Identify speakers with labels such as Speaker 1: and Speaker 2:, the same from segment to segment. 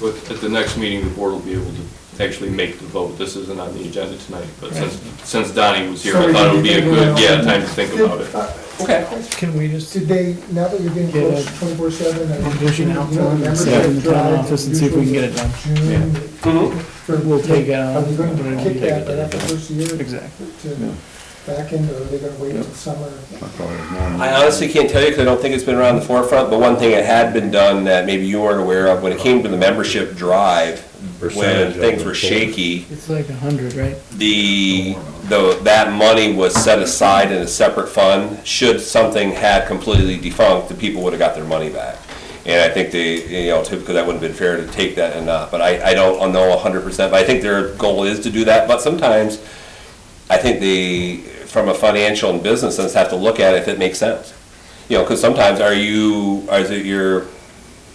Speaker 1: with, at the next meeting, the board will be able to actually make the vote. This isn't on the agenda tonight, but since, since Donnie was here,
Speaker 2: So
Speaker 1: I
Speaker 2: we
Speaker 1: thought it
Speaker 2: can
Speaker 1: would be a
Speaker 2: think
Speaker 1: good,
Speaker 2: about it.
Speaker 1: yeah, time to think
Speaker 2: Did-
Speaker 1: about it.
Speaker 2: uh,
Speaker 3: Okay.
Speaker 4: Can we just,
Speaker 2: Did they, now that you're getting
Speaker 4: Get
Speaker 2: close
Speaker 4: a-
Speaker 2: to twenty-four seven and.
Speaker 4: we're pushing out
Speaker 2: you know,
Speaker 4: for them and
Speaker 2: membership
Speaker 4: sit in the town
Speaker 2: drive
Speaker 4: office and see if we can get it done.
Speaker 2: usually
Speaker 4: Yeah.
Speaker 2: June for-
Speaker 4: We'll take it out.
Speaker 2: Are they going
Speaker 4: but it'll
Speaker 2: to
Speaker 4: be
Speaker 2: kick
Speaker 4: taken
Speaker 2: that right after
Speaker 4: down.
Speaker 2: the first year to
Speaker 4: Exactly.
Speaker 2: back end, or are they gonna wait until summer?
Speaker 5: I honestly can't tell you because I don't think it's been around the forefront, but one thing that had been done that maybe you weren't aware of, when it came to the membership drive, when
Speaker 6: Percentage of
Speaker 5: things
Speaker 6: the
Speaker 5: were
Speaker 6: total.
Speaker 5: shaky,
Speaker 4: It's like a hundred, right?
Speaker 5: the, the, that money was set aside in a separate fund. Should something had completely defunct, the people would have got their money back. And I think they, you know, typically that would have been fair to take that and not, but I, I don't know hundred percent. But I think their goal is to do that, but sometimes I think they, from a financial and business sense, have to look at if it makes sense. You know, because sometimes are you, are it your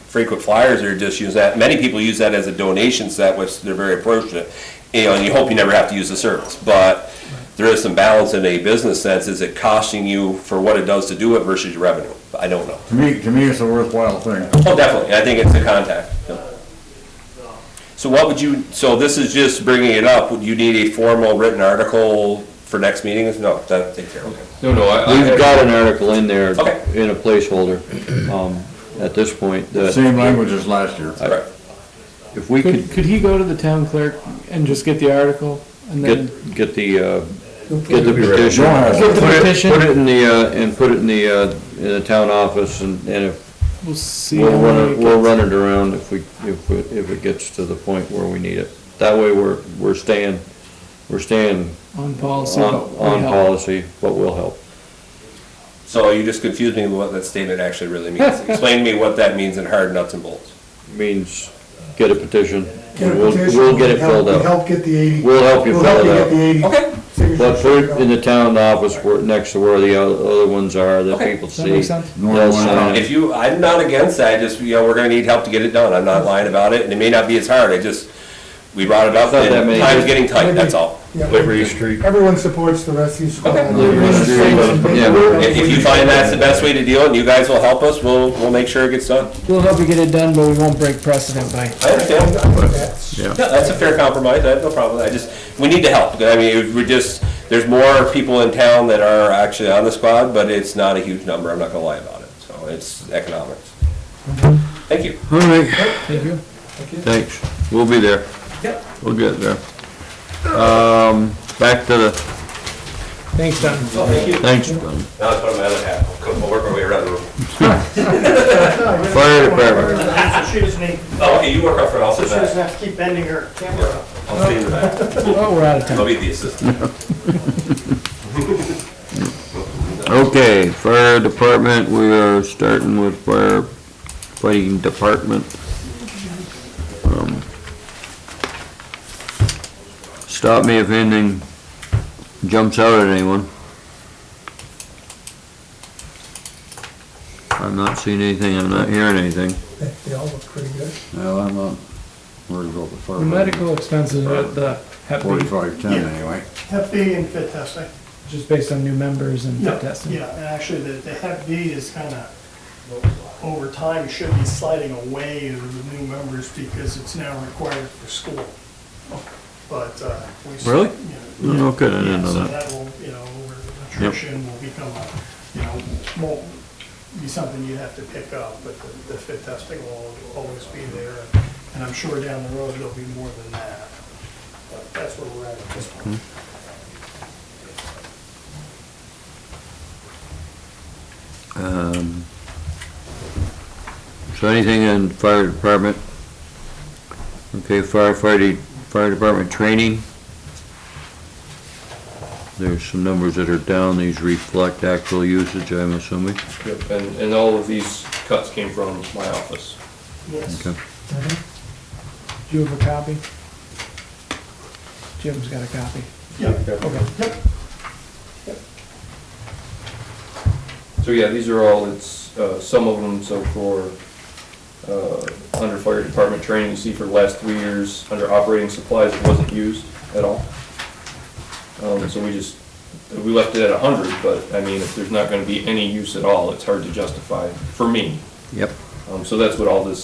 Speaker 5: frequent flyers are just use that, many people use that as a donation set, which they're very appropriate. You know, and you hope you never have to use the service, but there is some balance in a business sense, is it costing you for what it does to do it versus your revenue? I don't know.
Speaker 7: To me, to me, it's a worthwhile thing.
Speaker 5: Oh, definitely, I think it's a contact. yeah. So what would you, so this is just bringing it up, would you need a formal written article for next meeting? No, that, take care, okay.
Speaker 1: No, no, I, I
Speaker 6: We've
Speaker 1: have-
Speaker 6: got an article in there,
Speaker 5: Okay.
Speaker 6: in a placeholder, um, at this point, that
Speaker 7: Same language as last year.
Speaker 5: All right.
Speaker 6: if we could
Speaker 4: Could, could he go to the town clerk and just get the article and then?
Speaker 6: get, get the, uh,
Speaker 2: You'll put
Speaker 6: get the
Speaker 2: it-
Speaker 6: petition.
Speaker 7: Don't have it.
Speaker 4: Get the
Speaker 6: Put it-
Speaker 4: petition.
Speaker 6: Put it in the, uh, and put it in the, uh, in the town office, and, and if,
Speaker 4: We'll see.
Speaker 6: we'll
Speaker 4: how
Speaker 6: run
Speaker 4: many
Speaker 6: it, we'll
Speaker 4: gets.
Speaker 6: run it around if we, if, we- if it gets to the point where we need it. That way, we're, we're staying, we're staying
Speaker 4: On policy.
Speaker 6: on,
Speaker 4: but we
Speaker 6: on
Speaker 4: help.
Speaker 6: policy, but will help.
Speaker 5: So you just confused me with what that statement actually really means. Explain to me what that means in hard nuts and bolts.
Speaker 6: Means get a petition,
Speaker 2: get a
Speaker 6: and we'll,
Speaker 2: petition,
Speaker 6: we'll get it
Speaker 2: help-
Speaker 6: filled out.
Speaker 2: Help get the eighty.
Speaker 6: We'll help you
Speaker 2: We'll help
Speaker 6: fill it
Speaker 2: you
Speaker 6: out.
Speaker 2: get the eighty.
Speaker 5: Okay.
Speaker 2: signatures
Speaker 6: But put it in the
Speaker 2: filled out.
Speaker 6: town office where, next to where the o- other ones are, that
Speaker 5: Okay.
Speaker 6: people
Speaker 4: Does that
Speaker 6: see.
Speaker 4: make sense?
Speaker 6: They'll sign
Speaker 5: If
Speaker 6: it.
Speaker 5: you, I'm not against that, just, you know, we're gonna need help to get it done, I'm not lying about it, and it may not be as hard, I just, we brought it up,
Speaker 6: Not that
Speaker 5: and
Speaker 6: many.
Speaker 5: time's getting tight, that's all.
Speaker 2: Yeah.
Speaker 7: Street.
Speaker 2: Everyone supports the rescue squad.
Speaker 5: Okay.
Speaker 6: Liberty Street, yeah.
Speaker 5: If, if you find that's the best way to deal, and you guys will help us, we'll, we'll make sure it gets done.
Speaker 4: We'll help you get it done, but we won't break precedent by.
Speaker 5: I understand,
Speaker 2: That's-
Speaker 5: yeah, that's a fair compromise, I have no problem with that, I just, we need to help, I mean, if we're just, there's more people in town that are actually on the squad, but it's not a huge number, I'm not gonna lie about it, so it's economics. Thank you.
Speaker 6: All right,
Speaker 4: Thank you.
Speaker 6: thanks. We'll be there.
Speaker 5: Yep.
Speaker 6: We'll get there. Um, back to the,
Speaker 4: Thanks, Don.
Speaker 5: Thank you.
Speaker 6: thanks, um,
Speaker 5: Now let's put on my other hat, We'll come- we'll work our way around the room.
Speaker 6: fire department.
Speaker 8: That's what she was named.
Speaker 5: Oh, okay, you work up front, I'll sit
Speaker 8: She doesn't
Speaker 5: back.
Speaker 8: have to keep bending her camera up.
Speaker 5: I'll stay in the back.
Speaker 4: Oh, we're out of time.
Speaker 5: I'll be the assistant.
Speaker 6: Okay, fire department, we are starting with fire fighting department. Um, Stop me if anything jumps out at anyone. I'm not seeing anything, I'm not hearing anything.
Speaker 2: They they all look pretty good.
Speaker 7: Well, I'm, uh, worried about the fire.
Speaker 4: The medical expenses at the Hep B,
Speaker 7: Forty-five ten anyway.
Speaker 8: Hep B and fit testing.
Speaker 4: just based on new members and
Speaker 8: Yeah,
Speaker 4: testing.
Speaker 8: Yeah, and actually, the, the Hep B is kind of, over time, should be sliding away of the new members because it's now required for school. But, uh. we-
Speaker 6: Really? Oh,
Speaker 8: Yeah,
Speaker 6: No kidding, I didn't
Speaker 8: yeah,
Speaker 6: know
Speaker 8: so
Speaker 6: that.
Speaker 8: will, you know, over attrition will become, a you know, won't be something you have to pick up, but the, the fit testing will always be there. And I'm sure down the road, there'll be more than that. But that's where we're at at this point.
Speaker 6: Hmm. Um, So anything in fire department? Okay, firefighting, fire department training. There's some numbers that are down, these reflect actual usage, I'm assuming.
Speaker 1: Yep, and, and all of these cuts came from my office.
Speaker 8: Yes.
Speaker 6: Okay.
Speaker 4: Do you have a copy? Jim's got a copy.
Speaker 8: Yeah.
Speaker 1: So yeah, these are all, it's, uh, some of them, so for, uh, under fire department training, you see for the last three years, under operating supplies, it wasn't used at all. Um, so we just, we left it at a hundred, but I mean, if there's not gonna be any use at all, it's hard to justify, for me.
Speaker 6: Yep.
Speaker 1: Um, so that's what all this